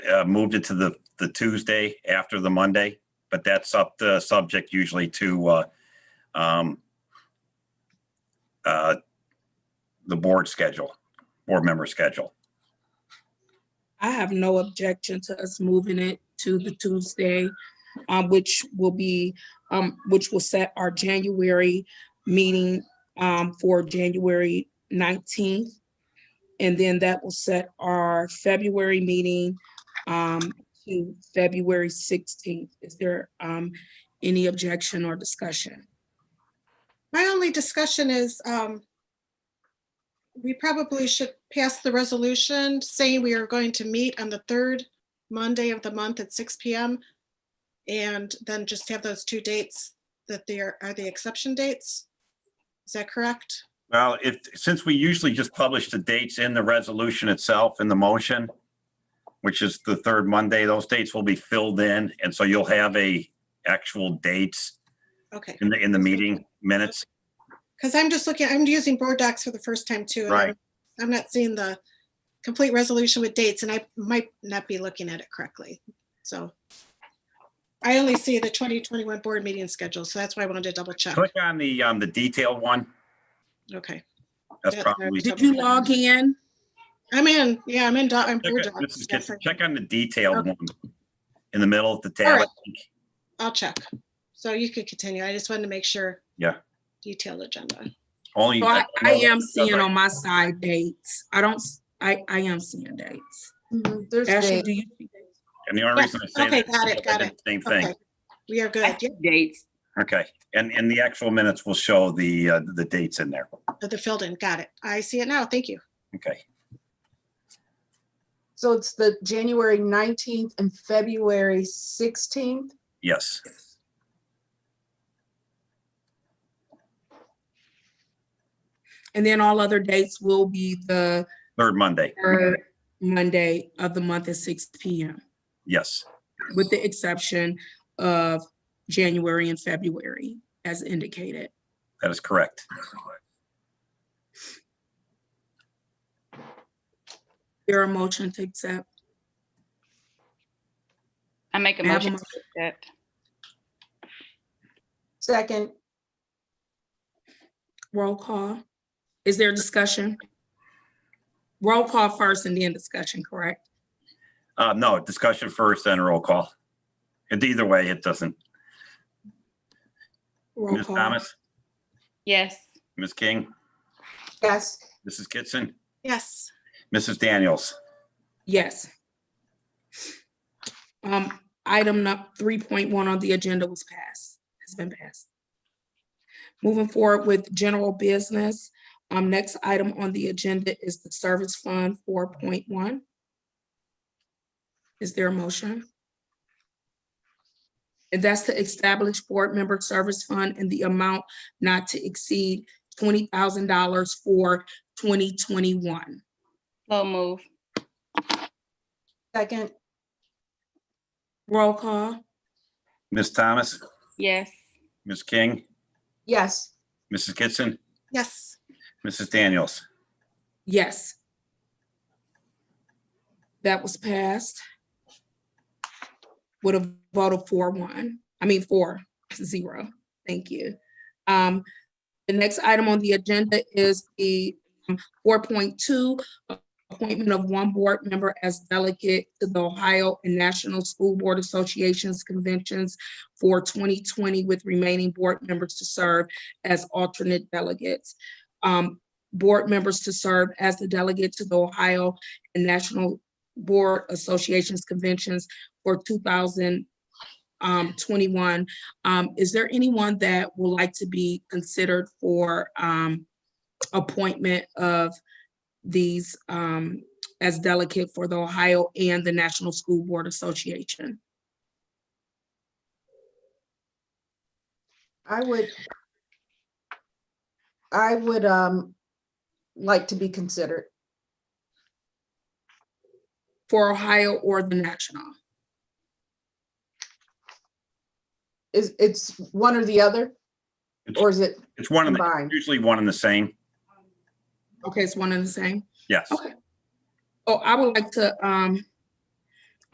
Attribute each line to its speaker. Speaker 1: uh, moved it to the, the Tuesday after the Monday, but that's up the subject usually to, uh, um, uh, the board schedule, board member schedule.
Speaker 2: I have no objection to us moving it to the Tuesday, um, which will be, um, which will set our January meeting, um, for January nineteenth. And then that will set our February meeting, um, to February sixteenth. Is there, um, any objection or discussion?
Speaker 3: My only discussion is, um, we probably should pass the resolution saying we are going to meet on the third Monday of the month at six P M. And then just have those two dates that they are, are the exception dates. Is that correct?
Speaker 1: Well, if, since we usually just publish the dates in the resolution itself in the motion, which is the third Monday, those dates will be filled in. And so you'll have a actual dates
Speaker 3: Okay,
Speaker 1: in the, in the meeting minutes.
Speaker 3: because I'm just looking, I'm using board docs for the first time too. and I'm-
Speaker 1: Right.
Speaker 3: I'm not seeing the complete resolution with dates and I might not be looking at it correctly, so. I only see the 2021 board meeting schedule, so that's why I wanted to double check.
Speaker 1: Click on the, um, the detailed one.
Speaker 3: Okay,
Speaker 1: That's
Speaker 3: Yeah,
Speaker 1: probably.
Speaker 2: Did you log in?
Speaker 3: I'm in, yeah, I'm in, Do- I'm
Speaker 1: Check
Speaker 3: board
Speaker 1: it- this
Speaker 3: docs.
Speaker 1: is
Speaker 3: yeah,
Speaker 1: just-
Speaker 3: for-
Speaker 1: Check on the detailed one in the middle of the tab. I
Speaker 3: Alright.
Speaker 1: think.
Speaker 3: I'll check. So you could continue. I just wanted to make sure.
Speaker 1: Yeah.
Speaker 3: Detailed agenda.
Speaker 1: Only.
Speaker 2: So I, I uh, am
Speaker 1: That's
Speaker 2: seeing
Speaker 1: right.
Speaker 2: on my side dates. I don't, s- I, I am seeing dates.
Speaker 4: There's
Speaker 2: Ashley,
Speaker 4: dates.
Speaker 2: do you see dates?
Speaker 1: And the only reason I say
Speaker 3: Okay,
Speaker 1: that. is
Speaker 3: got it,
Speaker 1: because I
Speaker 3: got
Speaker 1: did
Speaker 3: it.
Speaker 1: the Same
Speaker 3: Okay,
Speaker 1: thing.
Speaker 3: We are good. Yeah,
Speaker 4: Dates.
Speaker 1: Okay. And, and the actual minutes will show the, uh, the dates in there.
Speaker 3: The filled in, got it. I see it now. Thank you.
Speaker 1: Okay.
Speaker 4: So it's the January 19th and February 16th.
Speaker 1: Yes.
Speaker 2: And then all other dates will be the
Speaker 1: Third Monday.
Speaker 2: third Monday of the month at six P M,
Speaker 1: Yes.
Speaker 2: with the exception of January and February, as indicated.
Speaker 1: That is correct.
Speaker 2: There a motion to accept?
Speaker 5: I make a
Speaker 2: May I have a
Speaker 5: motion to accept.
Speaker 4: Second,
Speaker 2: Roll call. Is there discussion? Roll call first and then discussion, correct?
Speaker 1: Uh, no, discussion first, then roll call. And either way, it doesn't.
Speaker 2: Roll
Speaker 1: Ms.
Speaker 2: call.
Speaker 1: Thomas,
Speaker 5: Yes,
Speaker 1: Ms. King,
Speaker 4: yes,
Speaker 1: Mrs. Kitson,
Speaker 3: Yes,
Speaker 1: Mrs. Daniels.
Speaker 2: Yes. Um, item three point one on the agenda was passed, has been passed. Moving forward with general business, um, next item on the agenda is the service fund four point one. Is there a motion? And that's to establish board member service fund in the amount not to exceed twenty thousand dollars for twenty twenty-one.
Speaker 5: slow move.
Speaker 4: second,
Speaker 2: Roll call.
Speaker 1: Ms. Thomas,
Speaker 5: Yes,
Speaker 1: Ms. King,
Speaker 4: yes,
Speaker 1: Mrs. Kitson,
Speaker 3: yes,
Speaker 1: Mrs. Daniels.
Speaker 2: Yes. That was passed. Would have voted four one, I mean, four zero. Thank you. Um, the next item on the agenda is the um, four point two appointment of one board member as delegate to the Ohio and National School Board Associations conventions for twenty twenty with remaining board members to serve as alternate delegates. Um, board members to serve as the delegate to the Ohio and National Board Associations Conventions for 2021. Um, Is there anyone that would like to be considered for um, appointment of these um, as delegate for the Ohio and the National School Board Association?
Speaker 4: I would. I would, um, like to be considered.
Speaker 2: For Ohio or the national?
Speaker 4: Is, it's one or the other? Or is it
Speaker 1: It's one of the,
Speaker 4: combined?
Speaker 1: usually one and the same.
Speaker 2: Okay, it's one and the same.
Speaker 1: Yes.
Speaker 2: Okay. Oh, I would like to um